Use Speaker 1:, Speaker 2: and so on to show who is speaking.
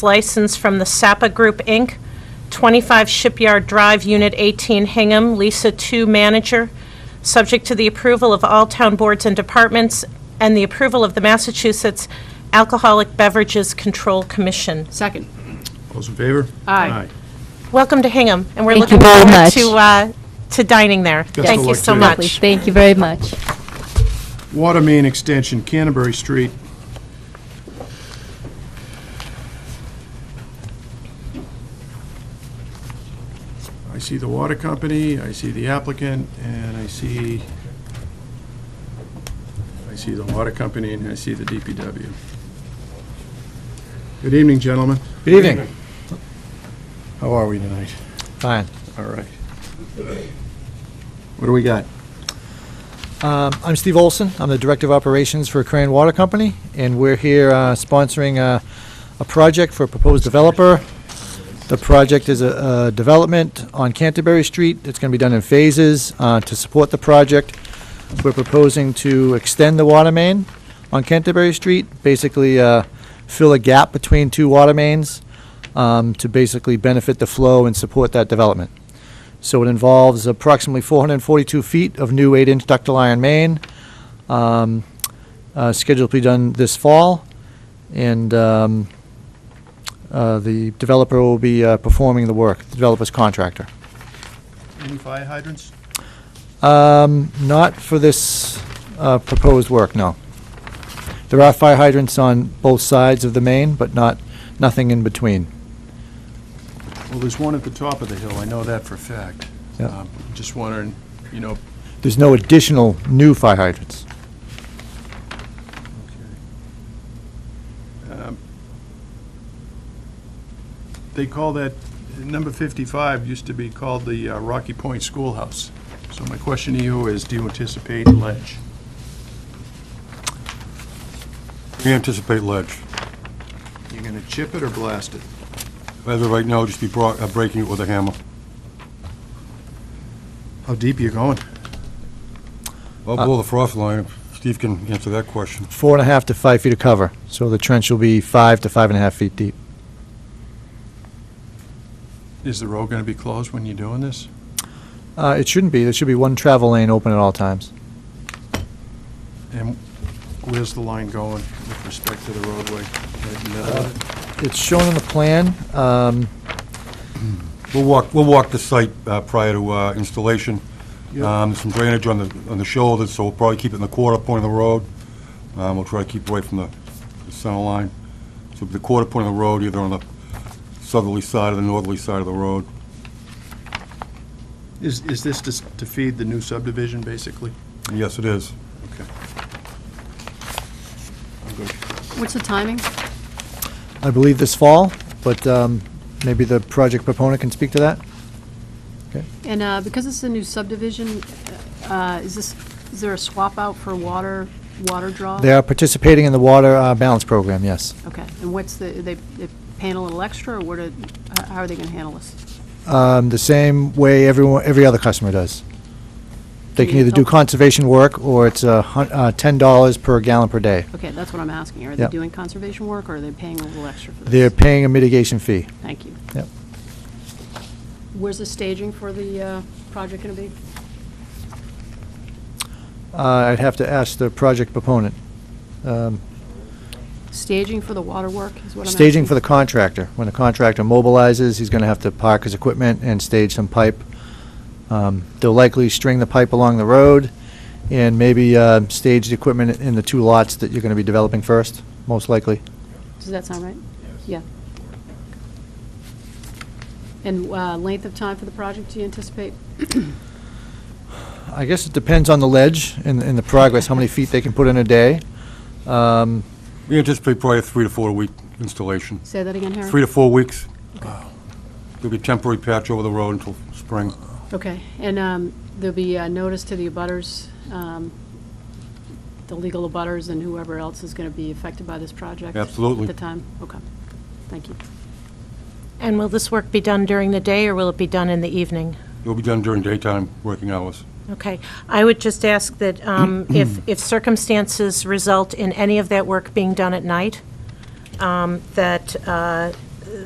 Speaker 1: license from the Sapa Group, Inc., 25 Shipyard Drive, Unit 18, Hingham, Lisa 2, manager, subject to the approval of all town boards and departments and the approval of the Massachusetts Alcoholic Beverages Control Commission.
Speaker 2: Second.
Speaker 3: Those in favor?
Speaker 2: Aye.
Speaker 1: Welcome to Hingham, and we're
Speaker 4: Thank you
Speaker 1: looking
Speaker 4: very
Speaker 1: forward
Speaker 4: much.
Speaker 1: to, uh, to dining there.
Speaker 3: of
Speaker 1: Thank you
Speaker 3: luck
Speaker 1: so
Speaker 3: to you.
Speaker 4: Lovely.
Speaker 1: much.
Speaker 4: Thank you very much.
Speaker 3: Water main extension, Canterbury Street. I see the water company, I see the applicant, and I see, I see the water company, and I see the DPW. Good evening, gentlemen.
Speaker 5: Good evening.
Speaker 3: How are we tonight?
Speaker 5: Fine.
Speaker 3: All right. What do we got?
Speaker 5: Um, I'm Steve Olson. I'm the Director of Operations for Crane Water Company, and we're here uh, sponsoring uh, a project for a proposed developer. The project is a a development on Canterbury Street. It's going to be done in phases. Uh, To support the project, we're proposing to extend the water main on Canterbury Street, basically uh, fill a gap between two water mains um, to basically benefit the flow and support that development. So it involves approximately 442 feet of new 8-inch ductile iron main, um, uh, scheduled to be done this fall, and um, uh, the developer will be uh, performing the work, the developer's contractor.
Speaker 3: Any fire hydrants?
Speaker 5: Um, Not for this uh, proposed work, no. There are fire hydrants on both sides of the main, but not, nothing in between.
Speaker 3: Well, there's one at the top of the hill, I know that for a fact.
Speaker 5: Yeah.
Speaker 3: Um, Just wondering, you know,
Speaker 5: There's no additional new fire hydrants.
Speaker 3: um, they call that, number 55 used to be called the uh, Rocky Point Schoolhouse. So my question to you is, do you anticipate ledge?
Speaker 6: We anticipate ledge.
Speaker 3: You're going to chip it or blast it?
Speaker 6: As of right now, just be bro- uh, breaking it with a hammer.
Speaker 3: How deep are you going?
Speaker 6: Well, below Uh, the frost line, Steve can answer that question.
Speaker 5: Four and a half to five feet of cover, so the trench will be five to five and a half feet deep.
Speaker 3: Is the road going to be closed when you're doing this?
Speaker 5: Uh, it shouldn't be. There should be one travel lane open at all times.
Speaker 3: And where's the line going with respect to the roadway? Right in the middle of it?
Speaker 5: It's shown on the plan. Um,
Speaker 6: We'll walk, we'll walk the site uh, prior to uh, installation.
Speaker 3: Yep.
Speaker 6: Um, There's Some drainage on the, on the shoulders, so we'll probably keep it in the quarter point of the road. Um, We'll try to keep away from the the center line. So the quarter point of the road, either on the southerly side or the northerly side of the road.
Speaker 3: Is is this to s- to feed the new subdivision, basically?
Speaker 6: And Yes, it is.
Speaker 3: Okay. I'm good.
Speaker 2: What's the timing?
Speaker 5: I believe this fall, but um, maybe the project proponent can speak to that.
Speaker 2: And uh, because it's a new subdivision, uh, is this, is there a swap out for water, water draw?
Speaker 5: They are participating in the water uh, balance program, yes.
Speaker 2: Okay, and what's the, they they paying a little extra, or what, are- how- how are they going to handle this?
Speaker 5: Um, the same way everyone, every other customer does. They can
Speaker 2: Yeah,
Speaker 5: either do
Speaker 2: okay.
Speaker 5: conservation work or it's a hun- uh, ten dollars per gallon per day.
Speaker 2: Okay, that's what I'm asking. Are they
Speaker 5: Yep.
Speaker 2: doing conservation work, or are they paying a little extra for
Speaker 5: They're
Speaker 2: this?
Speaker 5: paying a mitigation fee.
Speaker 2: Thank you.
Speaker 5: Yep.
Speaker 2: Where's the staging for the uh, project going to be?
Speaker 5: Uh, I'd have to ask the project proponent. Um,
Speaker 2: Staging for the water work is what I'm asking.
Speaker 5: Staging for the contractor. When the contractor mobilizes, he's going to have to park his equipment and stage some pipe. Um, They'll likely string the pipe along the road and maybe uh, stage the equipment in the two lots that you're going to be developing first, most likely.
Speaker 2: Does that sound right? Yeah. And uh, length of time for the project, do you anticipate?
Speaker 5: I guess it depends on the ledge and and the progress, how many feet they can put in a day. Um,
Speaker 6: We anticipate probably a three to four week installation.
Speaker 2: Say that again, Harry?
Speaker 6: Three to four weeks. There'll be a temporary patch over the road until spring.
Speaker 2: Okay, and um, there'll be a notice to the abutters, um, the legal abutters and whoever else is going to be affected by this project?
Speaker 6: Absolutely.
Speaker 2: At the time? Okay, thank you.
Speaker 1: And will this work be done during the day, or will it be done in the evening?
Speaker 6: It will be done during daytime working hours.
Speaker 1: Okay. I would just ask that um, if if circumstances result in any of that work being done at night, um, that uh,